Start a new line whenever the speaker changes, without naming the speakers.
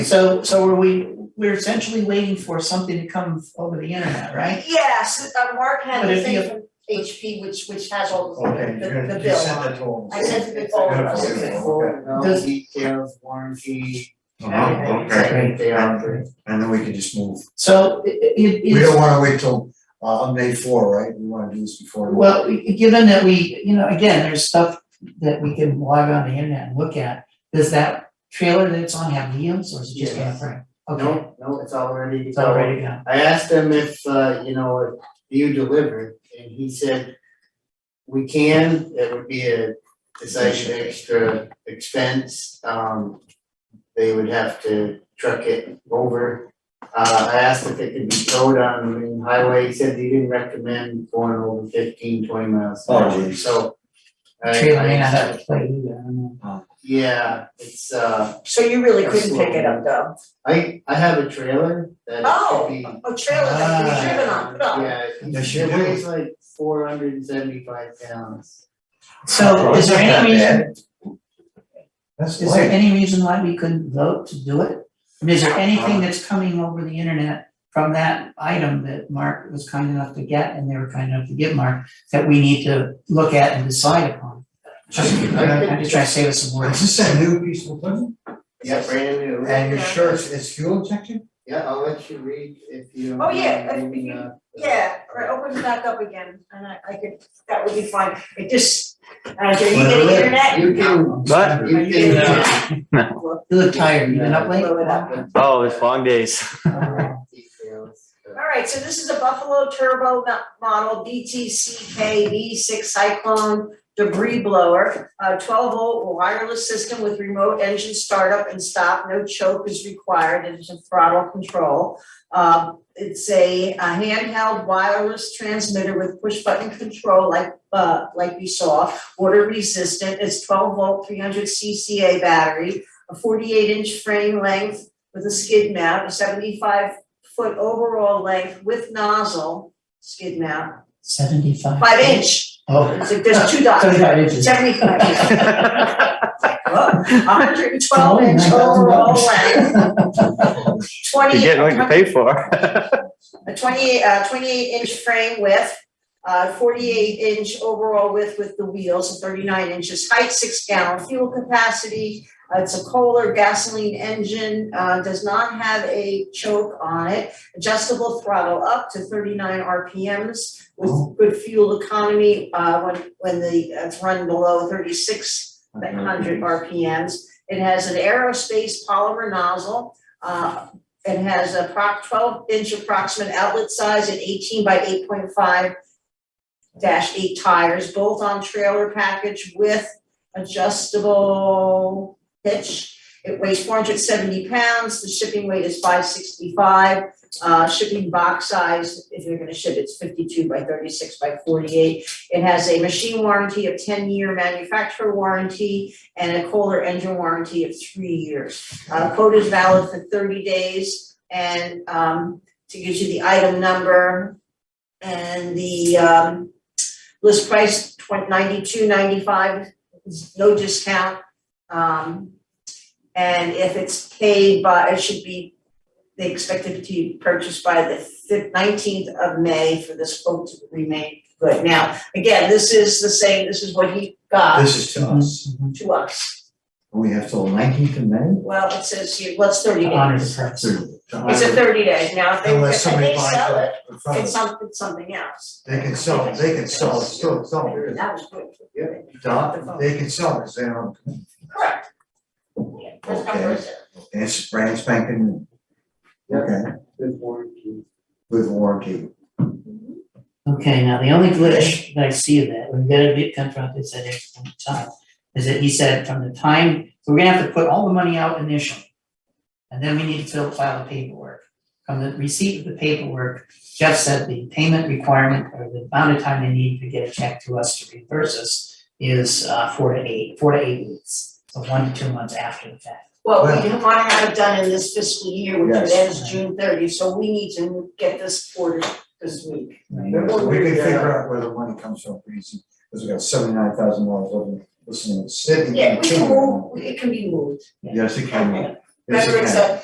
So, so are we, we're essentially waiting for something to come over the internet, right?
Yes, uh, Mark had
But
the
if
thing
you-
from HP, which, which has all
Okay,
the,
you're
the, the
gonna, you
bill
sent
on it.
that to them.
I sent it to all of us.
Okay,
Does-
details, warranty,
Uh-huh,
everything,
okay.
everything they are.
And then we can just move.
So it, it
We don't
it's,
wanna wait till, uh, on May four, right? We wanna do this before.
well, i- given that we, you know, again, there's stuff that we can log on the internet and look at. Does that trailer that's on have wheels or is it just
Yes.
camper? Okay,
No, no, it's already.
it's already gone.
I asked him if, uh, you know, if you delivered, and he said, we can, it would be a, it's like an extra expense, um, they would have to truck it over. Uh, I asked if it could be towed on the main highway, he said he didn't recommend going over 15, 20 miles an
Oh,
hour,
geez.
so. I-
Trailer may
I-
not have a plate either, I don't know.
Yeah, it's, uh,
So you really couldn't pick it up though.
I, I have a trailer that
Oh.
could be.
A trailer that you
Ah.
driven on, put on.
Yeah,
Yes,
it's-
you
it
do.
weighs like four hundred and seventy-five pounds.
So is there any reason,
That's
is there
light.
any reason why we couldn't vote to do it? I mean, Is
Uh-huh.
there anything that's coming over the internet from that item that Mark was kind enough to get and they were kind enough to give Mark that we need to look at and decide upon? Just, I'm just trying to save us some
Is
words.
this a new piece of equipment?
Yeah, brand new.
And your shirt is fuel injected?
Yeah, I'll let you read if you.
Oh, yeah, if
mind,
you-
uh,
Yeah, or open it back up again, and I, I could, that would be fine, it just, uh, do you get the internet?
You can,
But-
Are
you
you getting
can,
the
uh,
internet?
You look tired, you been up late?
Blow it up.
Oh, it's long days.
details, uh,
All right, so this is a Buffalo Turbo mo- model BTCK V6 Cyclone debris blower, a twelve volt wireless system with remote engine startup and stop, no choke is required, it is a throttle control. Uh, it's a a handheld wireless transmitter with push button control like, uh, like we saw, water resistant, it's twelve volt, three hundred CCA battery, a forty-eight inch frame length with a skid mount, a seventy-five foot overall length with nozzle, skid mount,
Seventy-five.
five inch,
Oh.
it's like there's two dots,
Seventy-five inches.
seventy-five inch. hundred and twelve inch
$9,000.
overall length,
You're
twenty,
getting what you pay for.
a twenty, uh, twenty-eight inch frame width, uh, forty-eight inch overall width with the wheels, and thirty-nine inches height, six gallon fuel capacity. Uh, It's a Kohler gasoline engine, uh, does not have a choke on it, adjustable throttle up to thirty-nine RPMs with good fuel economy, uh, when, when the, uh, it's run below thirty-six at
Mm-hmm.
hundred RPMs. It has an aerospace polymer nozzle. Uh, it has a prop twelve inch approximate outlet size and eighteen by eight point five dash eight tires, both on trailer package with adjustable hitch. It weighs four hundred seventy pounds. The shipping weight is five sixty-five. Uh, shipping box size, if you're gonna ship, it's fifty-two by thirty-six by forty-eight. It has a machine warranty of ten year manufacturer warranty and a Kohler engine warranty of three years. Uh, quote is valid for thirty days and, um, to give you the item number and the, um, list price twen- ninety-two ninety-five, no discount. Um, and if it's paid by, it should be, they expect it to be purchased by the nineteenth of May for this quote to remain good. Now, Again, this is the same, this is what he got
This is to us.
to us.
We have till nineteenth of May?
Well, it says here, well, it's thirty
Honor the
days.
press.
It's a thirty days now, if they,
Unless
if
somebody
they
buys
sell it,
it in front of
it's
us.
something, something else.
They can sell, it. they can sell, it. still, it's all good.
That was good.
Don, they can sell it, they don't,
Correct. Yeah, that's how it is.
it's brand spanking. new. Okay,
Good warranty.
with warranty.
Mm-hmm.
Okay, now the only glitch that I see of that, when you get a bit confronted, said every single time, is that he said from the time, so we're gonna have to put all the money out initially. And then we need to fill, file the paperwork. From the receipt of the paperwork, Jeff said the payment requirement or the amount of time they need to get a check to us to reimburse us is uh four to eight, four to eight weeks, so one to two months after the fact.
Well, we wanna have it done in this fiscal year, which
Yes.
ends June thirty, so we need to get this ordered this week.
So we can figure out where the money comes from pretty easy, because we got seventy-nine thousand dollars over, listening to sitting.
Yeah, we can move, it can be moved.
Yes, it can. Yes, it
Remember, it's
can.
a,